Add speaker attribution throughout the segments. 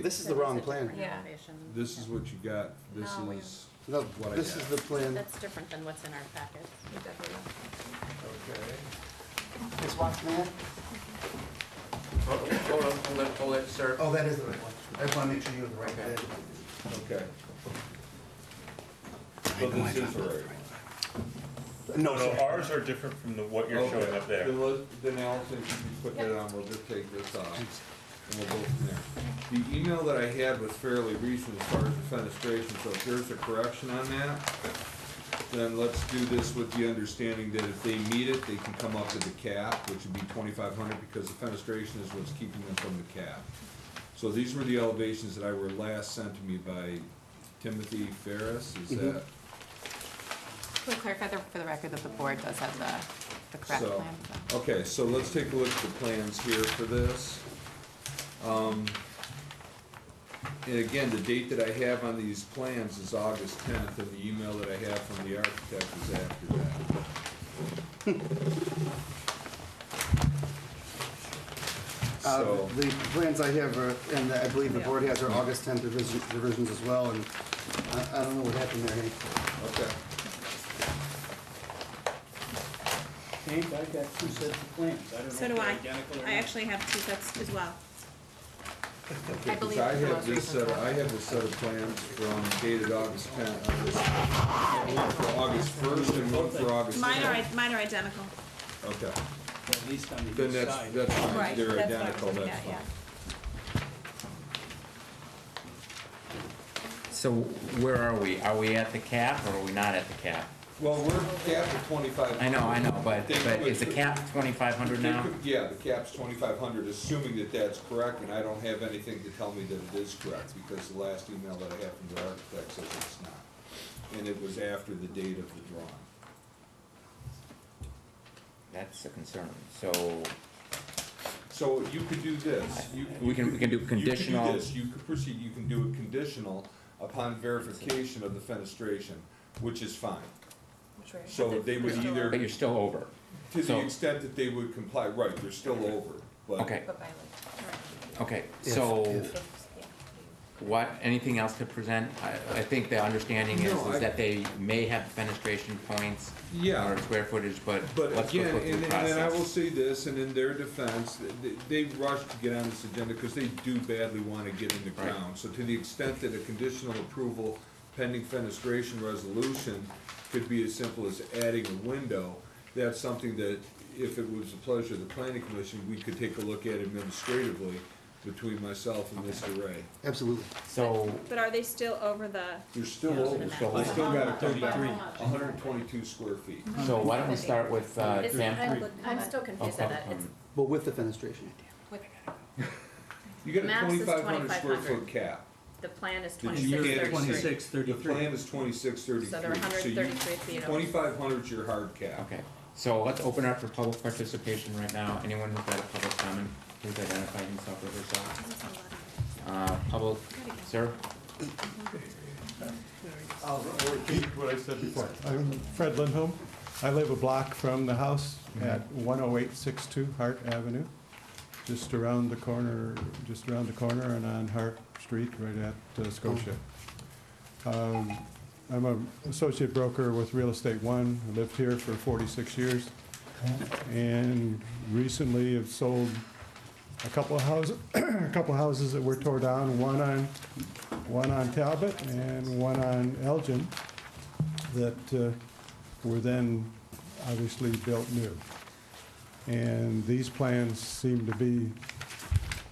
Speaker 1: this is the wrong plan.
Speaker 2: Yeah.
Speaker 3: This is what you got, this
Speaker 2: No, we-
Speaker 3: is,
Speaker 1: No,
Speaker 3: What I
Speaker 1: this is
Speaker 3: got.
Speaker 1: the plan.
Speaker 2: That's different than what's in our packet.
Speaker 1: This one, man?
Speaker 4: Hold on, hold on, hold it, sir.
Speaker 1: Oh, that is the right one. I just wanna make sure you have the right
Speaker 4: Okay.
Speaker 1: bid.
Speaker 3: okay. So this is right.
Speaker 1: No,
Speaker 5: No,
Speaker 1: sir.
Speaker 5: ours are different from the, what you're showing
Speaker 3: Okay.
Speaker 5: up there.
Speaker 3: Then let's, then Allison, if you put that on, we'll just take this off, and we'll go from there. The email that I had was fairly recent as far as the fenestration, so if there's a correction on that, then let's do this with the understanding that if they meet it, they can come up to the cap, which would be twenty-five hundred, because the fenestration is what's keeping them from the cap. So these were the elevations that I were last sent to me by Timothy Ferris, is that?
Speaker 2: Can we clarify the- for the record that the board does have the, the correct
Speaker 3: So,
Speaker 2: plan? so-
Speaker 3: Okay, so let's take a look at the plans here for this. Um, And again, the date that I have on these plans is August tenth, and the email that I have from the architect is after that.
Speaker 1: Uh,
Speaker 3: So,
Speaker 1: the plans I have are, and I believe the
Speaker 2: Yeah.
Speaker 1: board has are August tenth revisions as well, and I, I don't know what happened there, Hank.
Speaker 3: okay,
Speaker 6: Hank, I've got two sets of plans. I don't know if
Speaker 7: So
Speaker 6: they're
Speaker 7: do I.
Speaker 6: identical or
Speaker 7: I
Speaker 6: not.
Speaker 7: actually have two sets as well.
Speaker 3: okay, 'cause
Speaker 2: believe
Speaker 3: I
Speaker 2: it's the
Speaker 3: have
Speaker 2: most
Speaker 3: this
Speaker 2: recent
Speaker 3: set, I
Speaker 2: one.
Speaker 3: have this set of plans from dated August tenth, one for August first and one for August tenth.
Speaker 7: Mine are, i- mine are identical.
Speaker 3: Okay.
Speaker 6: At least on the
Speaker 3: Then
Speaker 6: east
Speaker 3: that's,
Speaker 6: side.
Speaker 3: that's fine,
Speaker 7: Right,
Speaker 3: they're
Speaker 7: that's what I was
Speaker 3: identical,
Speaker 7: looking
Speaker 3: that's
Speaker 7: at, yeah.
Speaker 3: fine.
Speaker 8: So where are we? Are we at the cap or are we not at the cap?
Speaker 3: Well, we're capped at twenty-five.
Speaker 8: I know, I know, but,
Speaker 3: They
Speaker 8: but
Speaker 3: could-
Speaker 8: is the cap twenty-five hundred
Speaker 3: they
Speaker 8: now?
Speaker 3: could- Yeah, the cap's twenty-five hundred, assuming that that's correct, and I don't have anything to tell me that it is correct, because the last email that I have from the architect says it's not. And it was after the date of the drawing.
Speaker 8: That's a concern. So
Speaker 3: So you could do this. You-
Speaker 8: We can- we can do
Speaker 3: you could
Speaker 8: conditional-
Speaker 3: this. You could proceed, you can do it conditional upon verification of the fenestration, which is fine. So they would either.
Speaker 8: But you're still over.
Speaker 3: To the
Speaker 8: So-
Speaker 3: extent that they would comply, right, they're still over, but.
Speaker 8: Okay, okay, so
Speaker 1: if.
Speaker 8: what, anything else to present? I, I think the understanding is,
Speaker 3: No, I-
Speaker 8: is that they may have fenestration points
Speaker 3: Yeah.
Speaker 8: or square footage, but
Speaker 3: But
Speaker 8: let's go
Speaker 3: again,
Speaker 8: through
Speaker 3: and,
Speaker 8: the
Speaker 3: and then I will
Speaker 8: process.
Speaker 3: say this, and in their defense, th- they, they rushed to get on this agenda because they do badly want to get in the
Speaker 8: Right.
Speaker 3: ground. So to the extent that a conditional approval pending fenestration resolution could be as simple as adding a window, that's something that, if it was the pleasure of the planning commission, we could take a look at administratively between myself and Mr. Ray.
Speaker 1: Absolutely.
Speaker 8: So,
Speaker 7: But are they still over the,
Speaker 3: You're still over,
Speaker 8: still
Speaker 3: I still
Speaker 2: over.
Speaker 3: gotta come back,
Speaker 2: Thirty-three.
Speaker 3: hundred and twenty-two square feet.
Speaker 8: so why don't we start with, uh,
Speaker 2: It's-
Speaker 8: Jan?
Speaker 2: I'm- I'm still confused on that.
Speaker 8: um,
Speaker 2: It's-
Speaker 1: But with the fenestration.
Speaker 3: You got a
Speaker 2: Max is
Speaker 3: twenty-five hundred square
Speaker 2: 2,500.
Speaker 3: foot cap.
Speaker 2: The plan is
Speaker 3: Did you
Speaker 2: twenty-six
Speaker 3: get
Speaker 2: thirty-three.
Speaker 6: Twenty-six,
Speaker 3: The plan
Speaker 6: thirty-three.
Speaker 3: is twenty-six thirty-three.
Speaker 2: So they're hundred and thirty-three feet over.
Speaker 3: Twenty-five hundred's your hard cap.
Speaker 8: Okay, so let's open up for public participation right now. Anyone who's got a public comment, please identify himself or herself. Uh, public, sir?
Speaker 9: I'll repeat what I said before. I'm Fred Lindholm. I live a block from the house
Speaker 1: Mm-hmm.
Speaker 9: at 10862 Hart Avenue, just around the corner, just around the corner and on Hart Street, right at uh, Scotia. Um, I'm an associate broker with Real Estate One. I lived here for 46 years. And recently have sold a couple of houses, a couple of houses that were tore down, one on one on Talbot and one on Elgin that uh, were then obviously built new. And these plans seem to be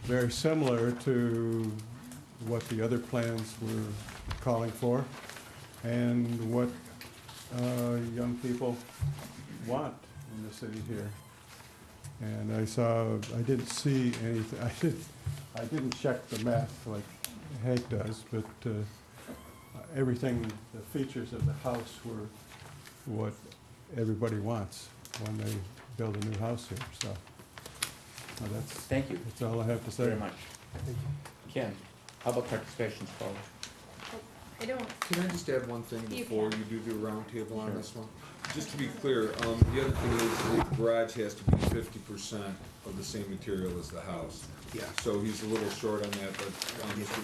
Speaker 9: very similar to what the other plans were calling for and what uh, young people want in the city here. And I saw, I didn't see anything, I didn't, I didn't check the map like Hank does, but uh, everything, the features of the house were what everybody wants when they build a new house here, so. uh, That's,
Speaker 8: Thank you
Speaker 9: that's all I have to say.
Speaker 8: very much. Ken, public participation's called.
Speaker 2: I don't,
Speaker 3: Can I just add one thing
Speaker 2: You
Speaker 3: before you do the roundtable on this one? Just to be clear, um, the other thing is the garage has to be fifty percent of the same material as the house.
Speaker 1: Yeah.
Speaker 3: So he's a little short on that, but, um, Mr.